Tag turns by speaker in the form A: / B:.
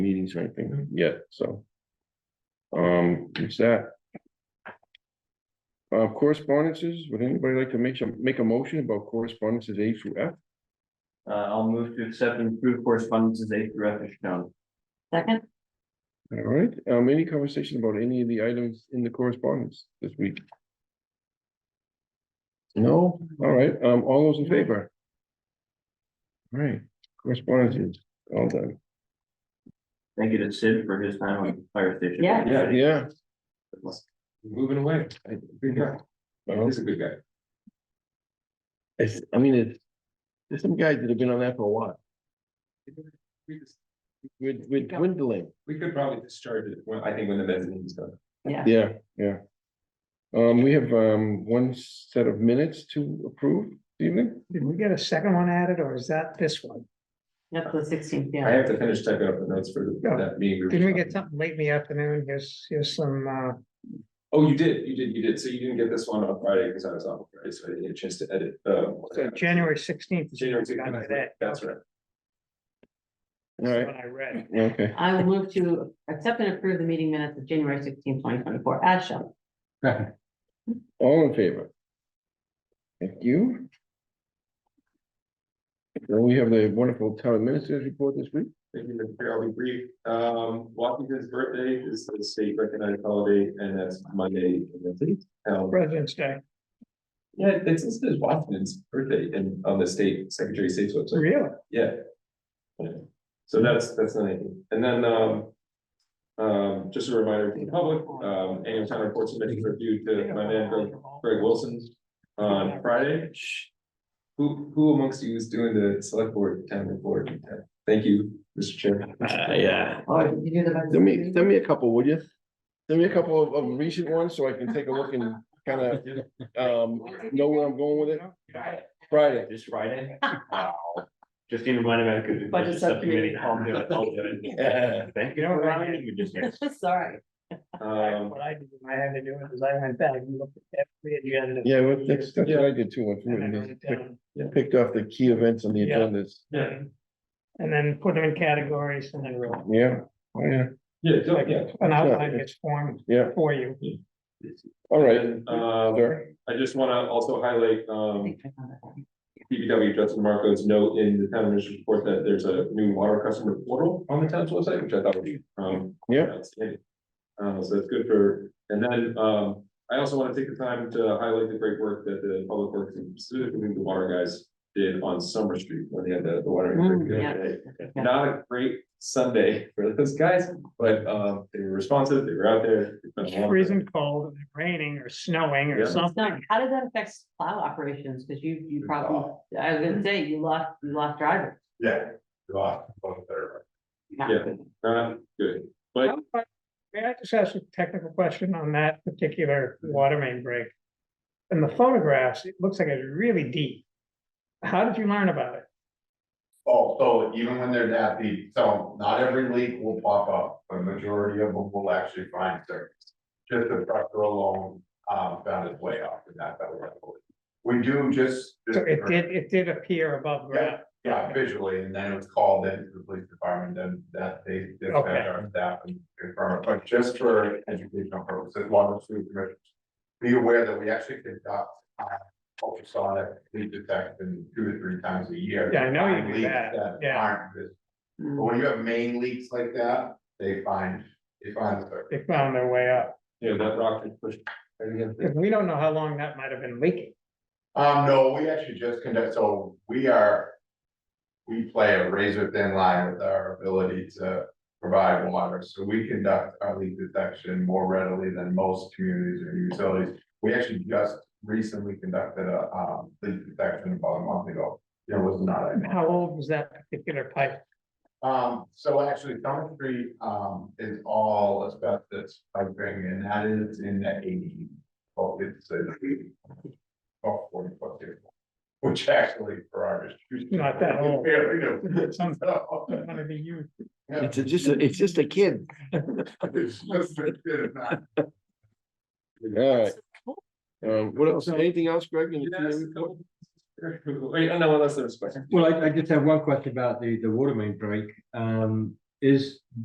A: fees or anything yet, so. Um, it's that. Uh, correspondences, would anybody like to make some, make a motion about correspondences A through F?
B: Uh, I'll move to accept and approve correspondences A through F as shown.
C: Second,
A: All right, um, any conversation about any of the items in the correspondence this week? No, all right, um, all those in favor? All Right, correspondences, all done,
B: Thank you to Sid for his time on the fire station.
C: Yeah.
A: yeah.
D: Moving away. I- Good guy.
A: well,
D: He's a good guy.
A: It's, I mean, it's, there's some guys that have been on that for a while,
D: We just-
A: we're, we're dwindling,
D: We could probably discharge it, when- I think, when the mezzanine is done.
C: yeah,
A: yeah, yeah. Um, we have, um, one set of minutes to approve, this evening,
E: Did we get a second one added, or is that this one?
C: that's the sixteenth,
D: I
C: yeah.
D: have to finish typing up the notes for
E: Yeah.
D: that meeting.
E: Didn't we get something late in the afternoon? Here's, here's some, uh,
D: Oh, you did, you did, you did. So you didn't get this one on Friday because I was off, right? So I didn't get a chance to edit. uh,
E: so January sixteenth.
D: January 16th. That's right.
A: all right,
E: What I read.
A: okay,
C: I will move to accept and approve the meeting minutes of January sixteenth, twenty twenty-four, as shown.
A: all in favor? Thank you. Then we have the wonderful town administrator's report this week,
D: Thank you, Mr. Chair. I'll be brief. Um, Washington's birthday is the state recognized holiday and that's Monday. Um,
E: President's Day,
D: Yeah, it's listed as Washington's birthday and on the state, Secretary of State's website.
E: really?
D: Yeah. Yeah. So that's, that's not anything. And then, um. Um, just a reminder to the public, um, annual town report submitted for review to my man Greg- Greg Wilson on Friday. Who, who amongst you is doing the select board town report? Thank you, Mr. Chairman.
B: Uh, yeah.
C: Oh, did you do the?
A: send me, send me a couple, would you? Send me a couple of, of recent ones, so I can take a look and kind of, um, know where I'm going with it, Friday,
B: This Friday? Wow. Justine reminded me I could. do
C: Budget
B: budget subcommittee.
C: subcommittee.
B: I'll do it, I'll do
A: Yeah.
B: it. Thank you.
E: You know,
B: for
E: Ryan-
B: reminding me just now.
C: Sorry,
D: Um,
E: What I did, when I had to do it, is I went back and looked at every agenda.
A: yeah, well, that's, that's what I did too, I
E: And I
A: threw
E: wrote
A: it
E: it
A: in.
E: down.
A: picked off the key events on the
E: Yeah.
A: agendas.
D: yeah,
E: And then put them in categories and then real.
A: Yeah, oh, yeah,
D: yeah, don't- yeah.
E: An outline gets formed
A: yeah,
E: for you.
A: all right.
D: And, um,
A: Sure.
D: I just wanna also highlight,
C: I
D: um,
C: think I found that one.
D: PPW Justin Marco's note in the town administration report that there's a new water customer portal on the town's website, which I thought would be, um.
A: Yeah.
D: outstanding. Uh, so that's good for, and then, um, I also want to take the time to highlight the great work that the public works and specifically the water guys did on Summer Street when they had the, the water.
C: Mm,
D: break the
C: yeah.
D: other day.
C: Yeah.
D: Not a great Sunday for those guys, but, um, they were responsive, they were out there. It's been a long time.
E: Freezing cold, raining or snowing
D: Yeah.
E: or
C: So
E: something.
C: how does that affect plow operations? Cause you, you probably, I was gonna say, you lost, you lost drivers.
D: Yeah. Wow, Yeah. Not good, but
E: May I just ask a technical question on that particular water main break? In the photographs, it looks like it's really deep. How did you learn about it?
F: Oh, so even when they're that deep, so not every leak will pop up, but majority of them will actually find surface. Just the pressure alone, um, found its way up and that, that was. We do just.
E: So it did, it did appear above ground.
F: Yeah, visually, and then it was called in to the police department, then that they dispatched
E: Okay.
F: our staff and confirmed, but just for educational purposes, water street commissioners. Be aware that we actually conduct uh, ultrasonic leak detection two to three times a year.
E: Yeah, I know you
F: Find
E: do
F: leaks
E: that, yeah.
F: aren't visible. But when you have main leaks like that, they find, they find the surface.
E: They found their way up.
D: Yeah, that rock did push. I think that's-
E: Because we don't know how long that might have been leaking.
F: Um, no, we actually just conduct, so we are. We play a razor thin line with our ability to provide water, so we conduct our leak detection more readily than most communities or utilities. We actually just recently conducted a, um, leak detection about a month ago. There was not a.
E: How old was that particular pipe?
F: Um, so actually, Summer Street, um, is all asbestos piping, and that is in the eighty. Oh, it's a. About forty foot table, which actually for our. distribution-
E: Not that old.
F: Fairly new.
E: Some-
F: So,
E: One of the youth.
F: yeah,
A: a- just, a- it's just a kid.
F: it's just a bit of that.
A: Alright. Um, what else,
G: So-
A: anything else, Greg? in the
D: Yeah, that's
A: community
D: a
A: report?
D: couple- Wait, oh, no, unless there's a question.
G: Well, I, I just have one question about the, the water main break. Um, is